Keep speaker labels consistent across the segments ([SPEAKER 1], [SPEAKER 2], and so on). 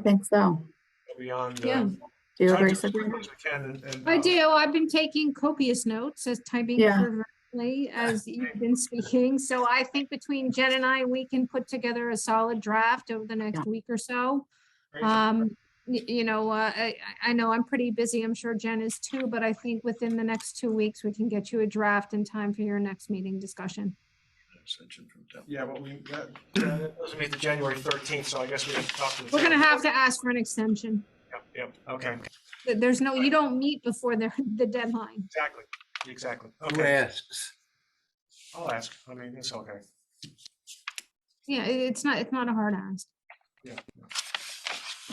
[SPEAKER 1] I think so.
[SPEAKER 2] beyond. uh,
[SPEAKER 3] Yeah.
[SPEAKER 1] Do you
[SPEAKER 2] time
[SPEAKER 1] agree,
[SPEAKER 2] as quick
[SPEAKER 1] Sabrina?
[SPEAKER 2] as I can and- and,
[SPEAKER 3] I
[SPEAKER 2] uh,
[SPEAKER 3] do. I've been taking copious notes as typing
[SPEAKER 1] Yeah.
[SPEAKER 3] fervently as you've been speaking. So I think between Jen and I, we can put together a solid draft over the
[SPEAKER 1] Yeah.
[SPEAKER 3] next week or so.
[SPEAKER 2] great.
[SPEAKER 3] Um, y- you know, uh, I, I I know I'm pretty busy. I'm sure Jen is too, but I think within the next two weeks, we can get you a draft in time for your next meeting discussion.
[SPEAKER 2] Yeah, but we, that, that doesn't meet the January thirteenth, so I guess we have to talk to. the
[SPEAKER 3] We're gonna
[SPEAKER 2] town.
[SPEAKER 3] have to ask for an extension.
[SPEAKER 2] Yep, Yep, okay,
[SPEAKER 3] There- There's no, you don't meet before the, the deadline.
[SPEAKER 2] exactly, exactly.
[SPEAKER 4] I'm gonna
[SPEAKER 2] Okay,
[SPEAKER 4] ask,
[SPEAKER 2] I'll ask. I mean, it's okay.
[SPEAKER 3] Yeah, it- it's not, it's not a hard ask.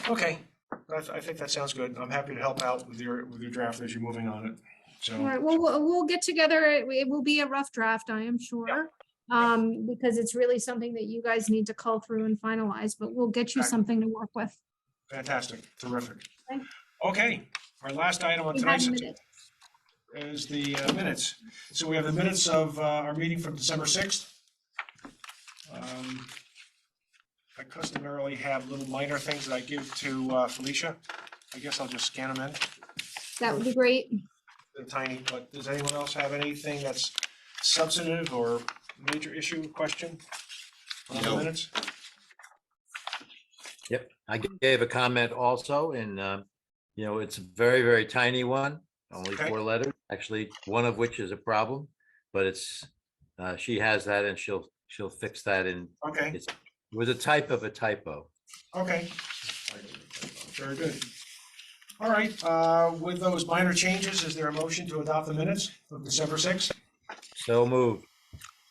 [SPEAKER 2] Okay, that's, I think that sounds good. I'm happy to help out with your, with your draft as you're moving on it.
[SPEAKER 3] All
[SPEAKER 2] So,
[SPEAKER 3] right, well, we'll, we'll get together. It it will be a rough draft, I am sure. Um, because it's really something that you guys need to cull through and finalize, but we'll get you
[SPEAKER 2] Okay.
[SPEAKER 3] something to work with.
[SPEAKER 2] fantastic, terrific.
[SPEAKER 3] Okay.
[SPEAKER 2] Okay, our last item on
[SPEAKER 3] We have
[SPEAKER 2] tonight's
[SPEAKER 3] minutes.
[SPEAKER 2] is the uh, minutes. So we have the minutes of uh, our meeting from December 6th. Um, I customarily have little minor things that I give to uh, Felicia. I guess I'll just scan them in,
[SPEAKER 3] That would be great.
[SPEAKER 2] they're tiny, but does anyone else have anything that's substantive or major issue, question? on the
[SPEAKER 4] No.
[SPEAKER 2] minutes?
[SPEAKER 4] I gave a comment also and, um, you know, it's a very, very tiny one, only
[SPEAKER 2] Okay.
[SPEAKER 4] four letters, actually, one of which is a problem. But it's, uh, she has that and she'll, she'll fix that and
[SPEAKER 2] Okay,
[SPEAKER 4] it was a type of a typo.
[SPEAKER 2] okay. Very good. All right, uh, with those minor changes, is there a motion to adopt the minutes of December 6th?
[SPEAKER 4] So moved.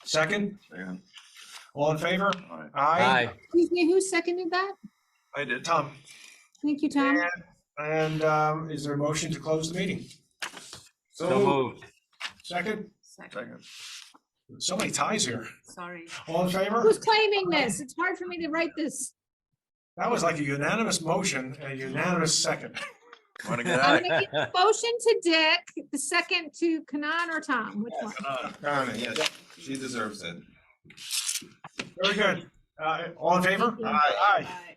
[SPEAKER 2] Second?
[SPEAKER 5] Second.
[SPEAKER 2] All in favor?
[SPEAKER 5] Aye.
[SPEAKER 4] Aye.
[SPEAKER 3] Excuse me, who seconded that?
[SPEAKER 2] I did, Tom.
[SPEAKER 3] Thank you, Tom.
[SPEAKER 2] And um, is there a motion to close the meeting?
[SPEAKER 4] So moved.
[SPEAKER 2] Second?
[SPEAKER 1] Second.
[SPEAKER 5] Second.
[SPEAKER 2] So many ties here.
[SPEAKER 1] Sorry.
[SPEAKER 2] All in favor?
[SPEAKER 3] Who's claiming this? It's hard for me to write this.
[SPEAKER 2] That was like a unanimous motion and a unanimous second.
[SPEAKER 5] Want to get
[SPEAKER 3] I'm
[SPEAKER 5] out?
[SPEAKER 3] gonna give the Motion to Dick, the second to Kanan or Tom, which one?
[SPEAKER 2] Darn it.
[SPEAKER 5] Yes, she deserves it.
[SPEAKER 2] Very good. Uh, All in favor?
[SPEAKER 3] Thank you.
[SPEAKER 2] Aye.
[SPEAKER 1] Aye.